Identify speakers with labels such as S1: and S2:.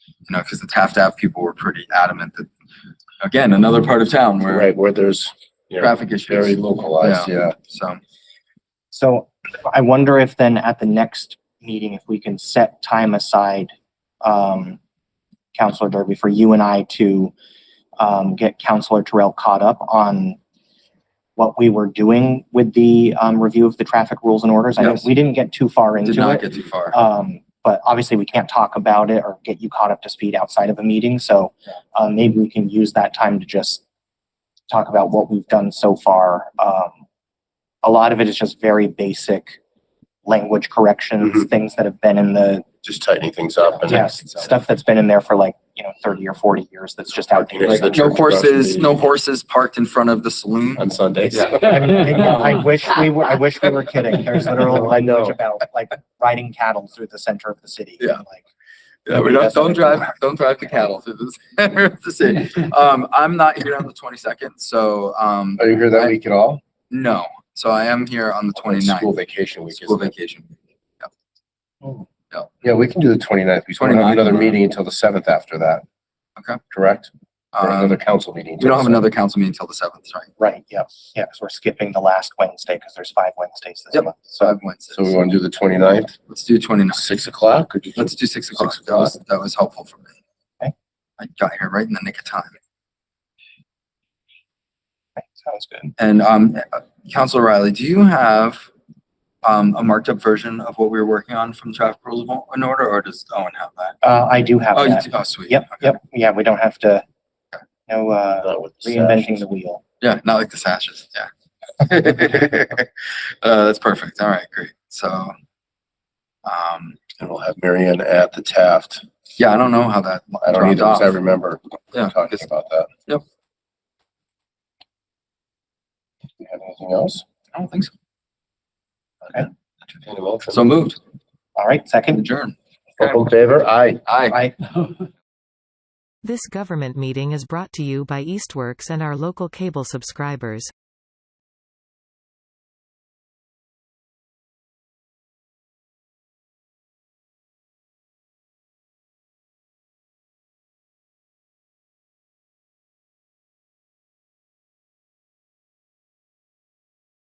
S1: you know, because the Taft Ave people were pretty adamant that, again, another part of town where
S2: Right, where there's, you know,
S1: traffic
S2: very
S1: issues,
S2: localized, yeah.
S1: so.
S3: So I wonder if then at the next meeting, if we can set time aside, um, Counselor Derby, for you and I to, um, get Counselor Terrell caught up on what we were doing with the, um, review of the traffic rules and orders. I know
S1: Yes.
S3: we didn't get too far into
S1: Did
S3: it.
S1: not get too far.
S2: Uh,
S3: Um, but obviously we can't talk about it or get you caught up to speed outside of a meeting, so, uh, maybe we can use that time to just talk about what we've done so far. Um, a lot of it is just very basic language corrections, things that have been in the,
S2: Just tightening things up and.
S3: yeah, stuff Mm-hmm. that's been in there for like, you know, thirty or forty years that's just outdated.
S2: Like,
S1: Like, no
S2: church across from
S1: horses,
S2: me.
S1: no horses parked in front of the saloon.
S2: On Sundays.
S1: Yeah.
S3: I mean, I I wish we were, I wish we were kidding. There's literal
S2: I know.
S3: language about like riding cattle through the center of the city.
S1: Yeah.
S3: Like,
S1: Yeah, we don't, don't drive, don't drive the cattle through the center of the city. Um, I'm not here on the twenty-second, so, um,
S2: Are you here that week at all?
S1: no. So I am here on the
S2: Like, School
S1: twenty-ninth,
S2: vacation week.
S1: school
S2: isn't it?
S1: vacation.
S2: Yeah, we can do the 29th. We don't have
S1: 29th.
S2: another meeting until the seventh after that.
S1: Okay.
S2: Correct? Or another
S1: Um,
S2: council meeting.
S1: we don't have
S2: until
S1: another council meeting until the seventh, right?
S3: Right, yeah, yeah, because we're skipping the last Wednesday because there's five Wednesdays this
S1: Yep.
S3: month.
S1: So I
S3: So
S1: have Wednesdays.
S2: the 7th. So uh, we want to do the 29th,
S1: Let's do twenty-ninth.
S2: six o'clock? or do you-
S1: Let's do six o'clock. That
S2: o'clock.
S1: was, that was helpful for me.
S3: Okay.
S1: I got here right in the nick of time.
S3: okay, sounds good.
S1: And, um, uh, Counselor Riley, do you have, um, a marked up version of what we were working on from traffic rules of o- in order, or does Owen have that?
S3: Uh, I do have
S1: Oh, you
S3: that.
S1: do, oh, sweet.
S3: Yep,
S1: Okay.
S3: yep, yeah, we don't have to, no, uh,
S2: Not with the
S3: reinventing
S2: sessions.
S3: the wheel.
S1: Yeah, not like the sashes. Yeah. uh, that's perfect. All right, great. So, um,
S2: And we'll have Marion at the Taft.
S1: yeah, I don't know how that.
S2: I don't
S1: dropped
S2: either, 'cause I
S1: off.
S2: remember
S1: Yeah,
S2: talking
S1: it's-
S2: about that.
S1: Yep.
S2: Do you have anything else?
S1: I don't think so.
S2: Entertain a motion.
S1: So moved.
S3: All right, second,
S1: Adjourn.
S2: All in favor? Aye.
S1: Aye.
S3: I,
S4: This government meeting is brought to you by Eastworks and our local cable subscribers.